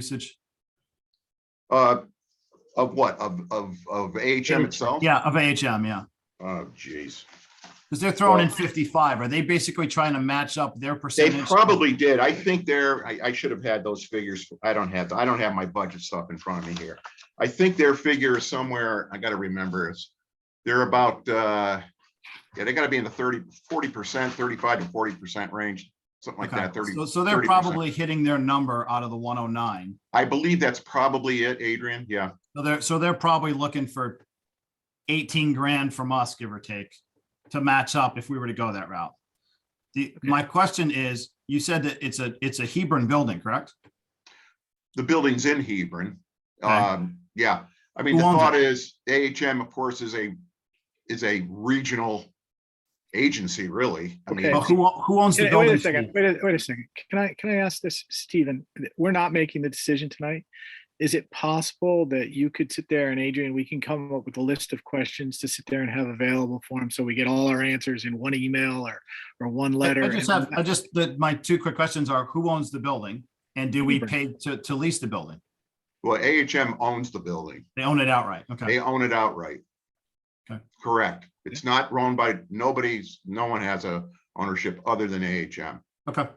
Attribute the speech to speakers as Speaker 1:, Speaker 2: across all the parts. Speaker 1: usage?
Speaker 2: Uh, of what? Of, of, of AHM itself?
Speaker 1: Yeah, of AHM, yeah.
Speaker 2: Oh, jeez.
Speaker 1: Because they're throwing in fifty-five. Are they basically trying to match up their
Speaker 2: They
Speaker 1: percentage?
Speaker 2: probably did. I think they're, I, I should have had those figures. I don't have, I don't have my budget stuff in front of me here. I think their figure is somewhere, I gotta remember, it's, they're about, uh, yeah, they gotta be in the 30, 40 percent, thirty-five to forty percent range, something like
Speaker 1: Okay.
Speaker 2: that, thirty.
Speaker 1: So, so they're
Speaker 2: 30%.
Speaker 1: probably hitting their number out of the one oh nine.
Speaker 2: I believe that's probably it, Adrian. Yeah,
Speaker 1: So they're, so they're probably looking for eighteen grand from us, give or take, to match up if we were to go that route. The, my question is, you said that it's a, it's a Hebron building, correct?
Speaker 2: the building's in Hebron.
Speaker 1: Okay.
Speaker 2: Um, yeah, I mean, the
Speaker 1: Who owns it?
Speaker 2: thought is AHM, of course, is a, is a regional agency, really. I mean,
Speaker 1: But
Speaker 2: it's-
Speaker 1: who, o- who owns the
Speaker 3: Yeah, Wait
Speaker 1: building?
Speaker 3: a second, wait a, wait a second. Can I, can I ask this, Stephen? We're not making the decision tonight. Is it possible that you could sit there and Adrian, we can come up with a list of questions to sit there and have available for him so we get all our answers in one email or, or one
Speaker 1: I-
Speaker 3: letter?
Speaker 1: I just
Speaker 3: and-
Speaker 1: have, I just, that my two quick questions are, who owns the building? And do we
Speaker 3: Hebron.
Speaker 1: pay to, to lease the building?
Speaker 2: well, AHM owns the building.
Speaker 1: They own it outright. Okay.
Speaker 2: They own it outright.
Speaker 1: Okay.
Speaker 2: Correct. It's not owned by, nobody's, no one has a ownership other than AHM.
Speaker 1: Okay.
Speaker 3: Okay.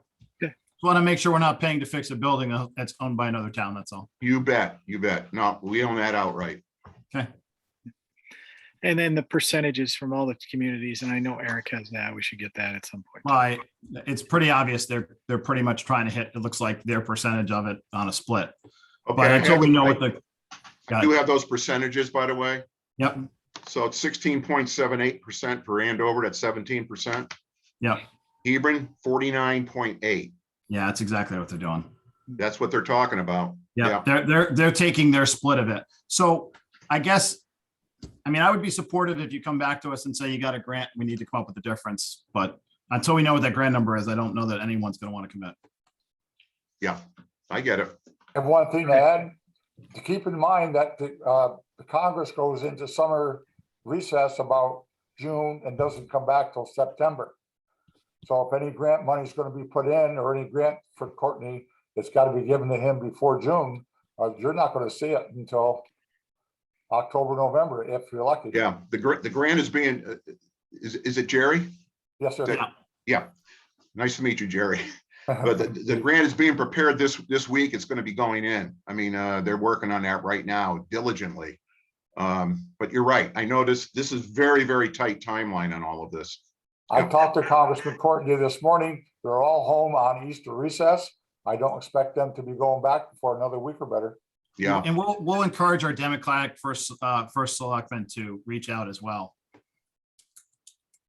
Speaker 1: Just want to make sure we're not paying to fix a building that's owned by another town. That's all.
Speaker 2: You bet, you bet. No, we own that outright.
Speaker 3: And then the percentages from all the communities, and I know Eric has that, we should get that at some point.
Speaker 1: Right. It's pretty obvious. They're, they're pretty much trying to hit, it looks like their percentage of it on a split.
Speaker 2: Okay,
Speaker 1: But
Speaker 2: I
Speaker 1: until
Speaker 2: have-
Speaker 1: we know what the,
Speaker 2: I do have those percentages, by the way.
Speaker 1: yep,
Speaker 2: So it's sixteen point seven eight percent for Andover, that's seventeen percent.
Speaker 1: Yeah.
Speaker 2: Hebron, forty-nine point eight.
Speaker 1: yeah, that's exactly what they're doing.
Speaker 2: That's what they're talking about.
Speaker 1: Yeah,
Speaker 2: Yeah.
Speaker 1: they're, they're, they're taking their split of it. So I guess, I mean, I would be supportive if you come back to us and say you got a grant, we need to come up with the difference. But until we know what that grant number is, I don't know that anyone's going to want to commit.
Speaker 2: I get it.
Speaker 4: And one thing to add, to keep in mind that the, uh, the Congress goes into summer recess about June and doesn't come back till September. So if any grant money's gonna be put in or any grant for Courtney, it's gotta be given to him before June. Or you're not gonna see it until October, November, if you're lucky.
Speaker 2: Yeah, the grant, the grant is being, uh, is, is it Jerry?
Speaker 4: Yes, sir.
Speaker 2: Yeah. Nice to meet you, Jerry. But the, the grant is being prepared this, this week. It's gonna be going in. I mean, uh, they're working on that right now diligently. Um, but you're right. I noticed this is very, very tight timeline on all of this.
Speaker 4: I talked to Congressman Courtney this morning. They're all home on Easter recess. I don't expect them to be going back before another week or better.
Speaker 2: Yeah,
Speaker 1: And we'll, we'll encourage our Democratic first, uh, first selectman to reach out as well.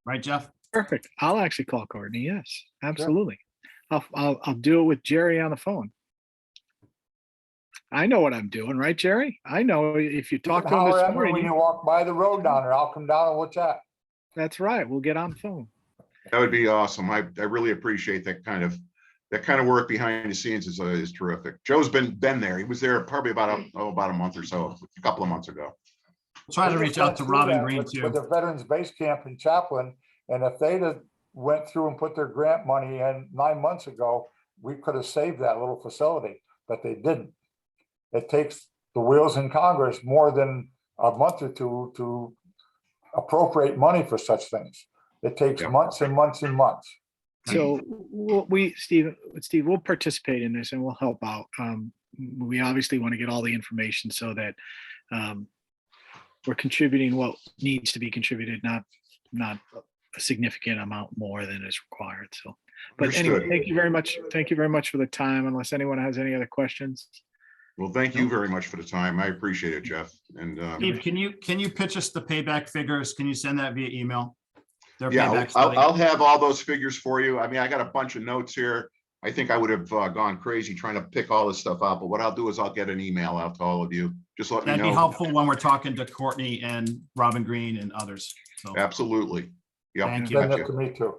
Speaker 1: Right, Jeff?
Speaker 3: Perfect. I'll actually call Courtney. Yes, absolutely. I'll, I'll, I'll do it with Jerry on the phone. I know what I'm doing, right, Jerry? I know if you talk to him
Speaker 4: Holler
Speaker 3: this
Speaker 4: at me when you
Speaker 3: morning,
Speaker 4: walk by the road down there. I'll come down and what's that?
Speaker 3: that's right. We'll get on the phone.
Speaker 2: that would be awesome. I, I really appreciate that kind of, that kind of work behind the scenes is, uh, is terrific. Joe's been, been there. He was there probably about,
Speaker 1: Mm.
Speaker 2: a- oh, about a month or so, a couple of months ago.
Speaker 1: Try to reach out to Robin Green
Speaker 4: With- With
Speaker 1: too.
Speaker 4: the Veterans Base Camp in Chaplin, and if they'd have went through and put their grant money in nine months ago, we could have saved that little facility, but they didn't. It takes the wheels in Congress more than a month or two to appropriate money for such things. It takes
Speaker 2: Yeah.
Speaker 4: months and months and months.
Speaker 3: So we'll- we, Steve, Steve, we'll participate in this and we'll help out. Um, we obviously want to get all the information so that um, we're contributing what needs to be contributed, not, not a significant amount more than is required. So. But anyway,
Speaker 2: Understood.
Speaker 3: thank you very much. Thank you very much for the time. Unless anyone has any other questions.
Speaker 2: Well, thank you very much for the time. I appreciate it, Jeff. And, um,
Speaker 1: Steve, can Oh. you, can you pitch us the payback figures? Can you send that via email? Their payback
Speaker 2: Yeah, I'll- I'll,
Speaker 1: study.
Speaker 2: I'll have all those figures for you. I mean, I got a bunch of notes here. I think I would have uh, gone crazy trying to pick all this stuff out, but what I'll do is I'll get an email out to all of you. Just let me
Speaker 1: That'd be
Speaker 2: know.
Speaker 1: helpful when we're talking to Courtney and Robin Green and others. So,
Speaker 2: Absolutely. Yeah.
Speaker 1: Thank you.
Speaker 4: Send that to
Speaker 2: gotcha.
Speaker 4: me too.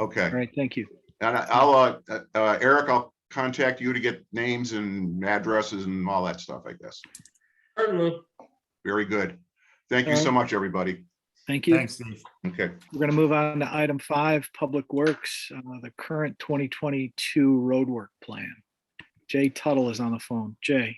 Speaker 2: Okay.
Speaker 3: All right, thank you.
Speaker 2: And I- I'll, uh, uh, Eric, I'll contact you to get names and addresses and all that stuff, I guess.
Speaker 5: Certainly.
Speaker 2: Very good. Thank you so much, everybody.
Speaker 3: Thank you.
Speaker 1: thanks, Steve.
Speaker 2: Okay.
Speaker 3: We're going to move on to item five, Public Works, uh, the current 2022 roadwork plan. Jay Tuttle is on the phone. Jay?